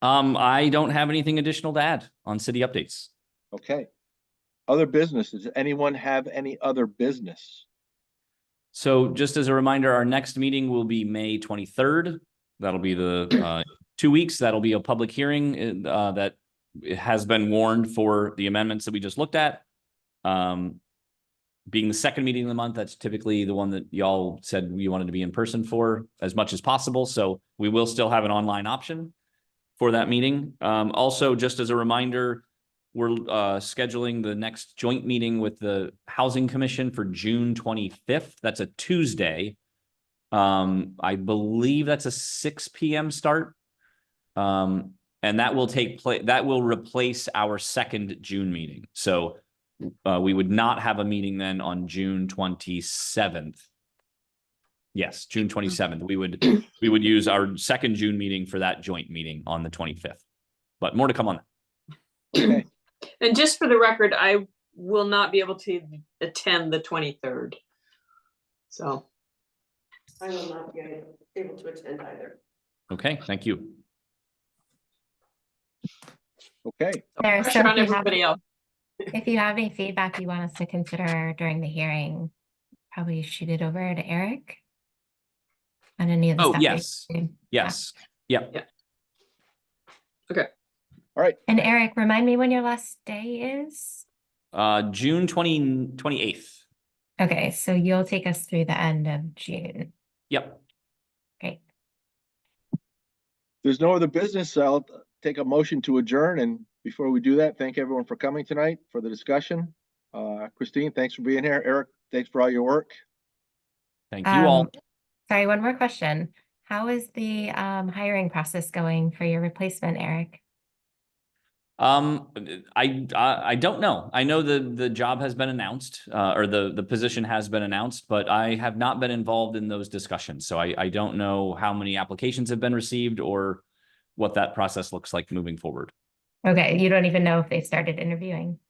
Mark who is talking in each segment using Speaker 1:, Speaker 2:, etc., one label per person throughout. Speaker 1: Um, I don't have anything additional to add on city updates.
Speaker 2: Okay. Other business, does anyone have any other business?
Speaker 1: So just as a reminder, our next meeting will be May twenty-third. That'll be the uh two weeks. That'll be a public hearing uh that has been warned for the amendments that we just looked at. Um, being the second meeting of the month, that's typically the one that y'all said you wanted to be in person for as much as possible. So we will still have an online option for that meeting. Um, also, just as a reminder, we're uh scheduling the next joint meeting with the Housing Commission for June twenty-fifth. That's a Tuesday. Um, I believe that's a six P M start. Um, and that will take place. that will replace our second June meeting. So uh, we would not have a meeting then on June twenty-seventh. Yes, June twenty-seventh. We would, we would use our second June meeting for that joint meeting on the twenty-fifth. But more to come on that.
Speaker 2: Okay,
Speaker 3: And just for the record, I will not be able to attend the twenty-third. So,
Speaker 4: I will not be able to attend either.
Speaker 1: Okay, thank you.
Speaker 2: okay,
Speaker 5: There, so
Speaker 3: pressure on
Speaker 5: if you have,
Speaker 3: everybody else.
Speaker 5: if you have any feedback you want us to consider during the hearing, probably shoot it over to Eric. On any of the
Speaker 1: Oh,
Speaker 5: stuff. that
Speaker 1: yes,
Speaker 5: you do.
Speaker 1: yes.
Speaker 5: And Eric, remind me when your last day is?
Speaker 1: Uh, June twenty, twenty-eighth.
Speaker 5: Okay, so you'll take us through the end of June.
Speaker 1: Yep.
Speaker 5: Great.
Speaker 2: there's no other business, so I'll take a motion to adjourn, and before we do that, thank everyone for coming tonight for the discussion. Uh, Christine, thanks for being here, Eric, thanks for all your work.
Speaker 1: Thank you all.
Speaker 5: Um, Sorry, one more question. How is the um hiring process going for your replacement, Eric?
Speaker 1: Um, I, I, I don't know. I know the, the job has been announced, uh, or the, the position has been announced, but I have not been involved in those discussions. So I, I don't know how many applications have been received or what that process looks like moving forward.
Speaker 5: Okay, you don't even know if they've started interviewing.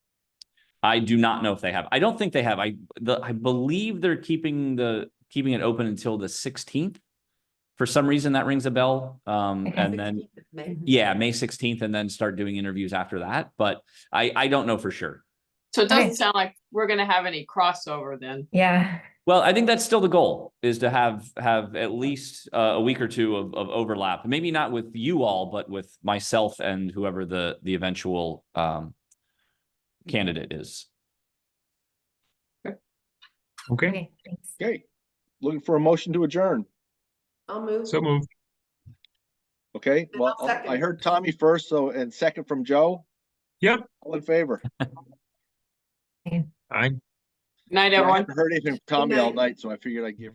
Speaker 1: I do not know if they have. I don't think they have. I, the, I believe they're keeping the, keeping it open until the sixteenth. For some reason, that rings a bell. Um,
Speaker 5: Okay.
Speaker 1: and then e- Yeah, May sixteenth and then start doing interviews after that, but I, I don't know for sure.
Speaker 3: so it
Speaker 5: Okay.
Speaker 3: doesn't sound like we're gonna have any crossover then.
Speaker 5: Yeah,
Speaker 1: Well, I think that's still the goal is to have, have at least uh, a week or two of, of overlap, maybe not with you all, but with myself and whoever the, the eventual um, candidate is.
Speaker 6: Okay,
Speaker 5: okay, thanks.
Speaker 2: Okay, looking for a motion to adjourn,
Speaker 4: I'll move.
Speaker 6: so moved.
Speaker 2: okay?
Speaker 4: And
Speaker 2: Well,
Speaker 4: I'll
Speaker 2: I- I
Speaker 4: second.
Speaker 2: heard Tommy first, so, and second from Joe.
Speaker 6: Yep.
Speaker 2: All in favor?
Speaker 6: I
Speaker 3: Night,
Speaker 2: I
Speaker 3: everyone.
Speaker 2: haven't Heard anything from Tommy all
Speaker 4: night.
Speaker 2: night, so I figured I'd give